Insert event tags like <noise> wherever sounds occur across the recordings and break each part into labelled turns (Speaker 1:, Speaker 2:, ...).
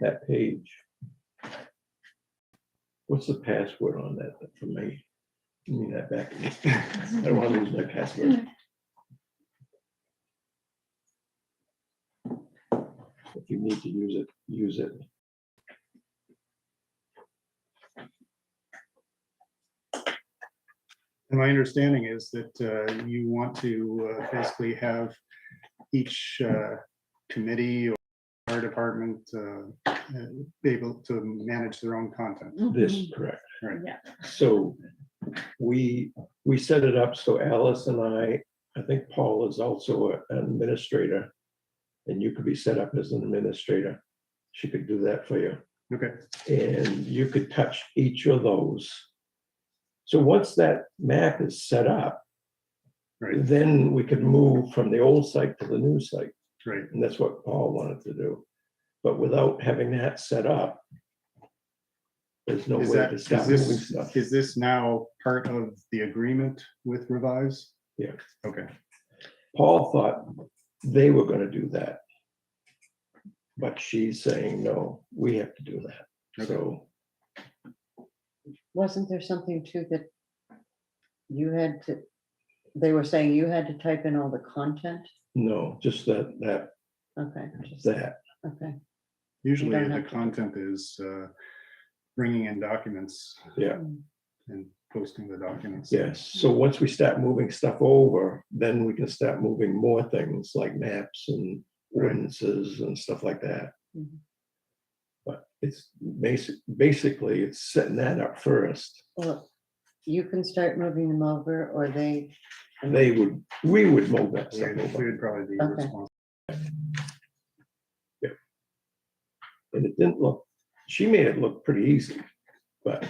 Speaker 1: that page. What's the password on that for me? Give me that back. I don't want to lose my password. If you need to use it, use it.
Speaker 2: And my understanding is that uh, you want to uh, basically have each uh, committee or our department uh, uh, be able to manage their own content.
Speaker 1: This, correct.
Speaker 2: Right.
Speaker 3: Yeah.
Speaker 1: Mm-hmm. So we, we set it up so Alice and I, I think Paul is also a- an administrator. And you could be set up as an administrator. She could do that for you.
Speaker 2: Okay,
Speaker 1: And you could touch each of those. So once that map is set up,
Speaker 2: right,
Speaker 1: then we could move from the old site to the new site.
Speaker 2: right,
Speaker 1: And that's what Paul wanted to do. But without having that set up, there's no way
Speaker 2: Is that-
Speaker 1: to stop
Speaker 2: is
Speaker 1: moving
Speaker 2: this-
Speaker 1: stuff.
Speaker 2: Is this now part of the agreement with Revise?
Speaker 1: Yeah.
Speaker 2: Okay,
Speaker 1: Paul thought they were gonna do that. But she's saying, no, we have to do that.
Speaker 2: Okay.
Speaker 1: So
Speaker 4: Wasn't there something too that you had to, they were saying you had to type in all the content?
Speaker 1: no, just that, that,
Speaker 4: Okay, just,
Speaker 1: that.
Speaker 4: okay,
Speaker 2: usually
Speaker 4: don't
Speaker 2: the
Speaker 4: have to.
Speaker 2: content is uh, bringing in documents.
Speaker 1: Yeah.
Speaker 2: And posting the documents.
Speaker 1: Yes. So once we start moving stuff over, then we can start moving more things like maps and ordinances and stuff like that.
Speaker 4: Mhm.
Speaker 1: But it's basic, basically, it's setting that up first.
Speaker 4: well, you can start moving them over, or they,
Speaker 1: They would, we would move that
Speaker 2: We
Speaker 1: stuff over.
Speaker 2: would probably be
Speaker 4: Okay.
Speaker 2: responsible.
Speaker 1: And it didn't look, she made it look pretty easy, but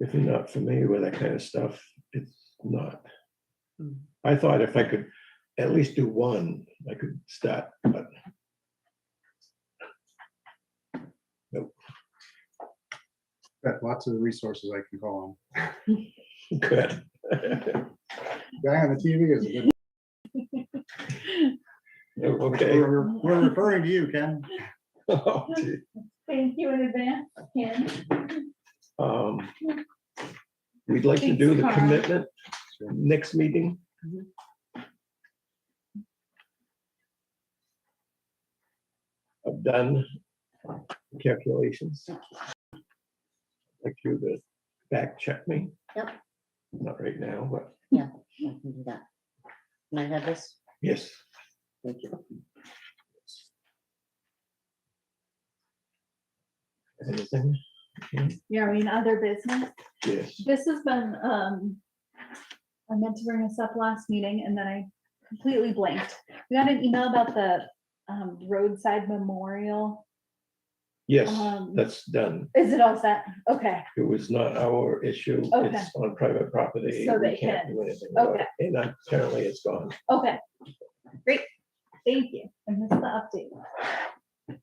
Speaker 1: if you're not familiar with that kind of stuff, it's not.
Speaker 4: Hmm.
Speaker 1: I thought if I could at least do one, I could start, but. <laughs>
Speaker 2: Got Lots of resources I can call on.
Speaker 1: Good. <laughs>
Speaker 2: guy on the TV is a good.
Speaker 1: Okay.
Speaker 2: We're we're referring to you, Ken.
Speaker 1: <laughs> Oh, gee.
Speaker 3: Thank you in advance, Ken.
Speaker 1: Um, We'd like to
Speaker 3: Thanks,
Speaker 1: do the
Speaker 3: Carl.
Speaker 1: commitment next meeting.
Speaker 4: Mhm.
Speaker 1: I've done calculations. Like you to back check me.
Speaker 4: Yep.
Speaker 1: Not right now, but
Speaker 4: I can do that. Can I have this?
Speaker 1: yes,
Speaker 4: Thank you.
Speaker 1: anything?
Speaker 3: You're in other business.
Speaker 1: Yes,
Speaker 3: This has been, um, I meant to bring this up last meeting and then I completely blanked. We got an email about the, um, roadside memorial.
Speaker 1: yes,
Speaker 3: Um,
Speaker 1: that's done.
Speaker 3: Is it all set? Okay,
Speaker 1: It was not our issue.
Speaker 3: Okay.
Speaker 1: It's on private property.
Speaker 3: So
Speaker 1: We
Speaker 3: they
Speaker 1: can't
Speaker 3: can-
Speaker 1: do anything about
Speaker 3: okay.
Speaker 1: it. And apparently it's gone.
Speaker 3: okay. Great. Thank you. And this is the update.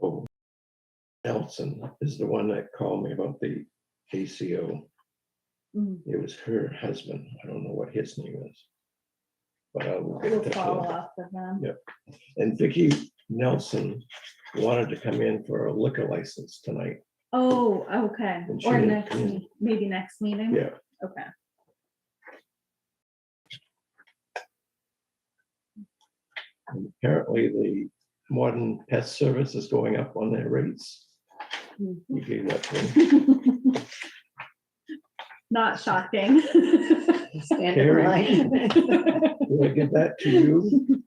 Speaker 1: Oh, Nelson is the one that called me about the ACO.
Speaker 3: Mm,
Speaker 1: It was her husband. I don't know what his name is. But I will get in
Speaker 3: We'll
Speaker 1: touch
Speaker 3: follow
Speaker 1: with him.
Speaker 3: up with them.
Speaker 1: And Vicky Nelson wanted to come in for a liquor license tonight.
Speaker 3: Oh, okay.
Speaker 1: And she
Speaker 3: Or
Speaker 1: didn't
Speaker 3: next,
Speaker 1: come in.
Speaker 3: me- maybe next meeting?
Speaker 1: Yeah.
Speaker 3: Okay.
Speaker 1: And Apparently, the modern pest service is going up on their rates.
Speaker 3: Mm-hmm.
Speaker 1: You gave that to him.
Speaker 3: <laughs> Not shocking. <laughs>
Speaker 4: Stand in
Speaker 1: Carrie.
Speaker 4: line. <laughs>
Speaker 1: Did I get that to you?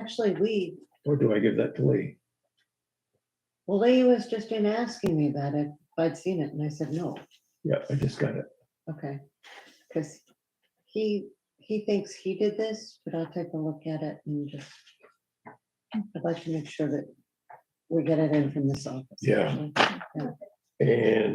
Speaker 4: Actually, we,
Speaker 1: Or do I give that to Lee?
Speaker 4: well, Lee was just in asking me about it, if I'd seen it, and I said, no,
Speaker 1: Yeah, I just got it.
Speaker 4: okay. Because he, he thinks he did this, but I'll take a look at it and just, I'd like to make sure that we get it in from this office.
Speaker 1: Yeah.
Speaker 4: actually.
Speaker 1: And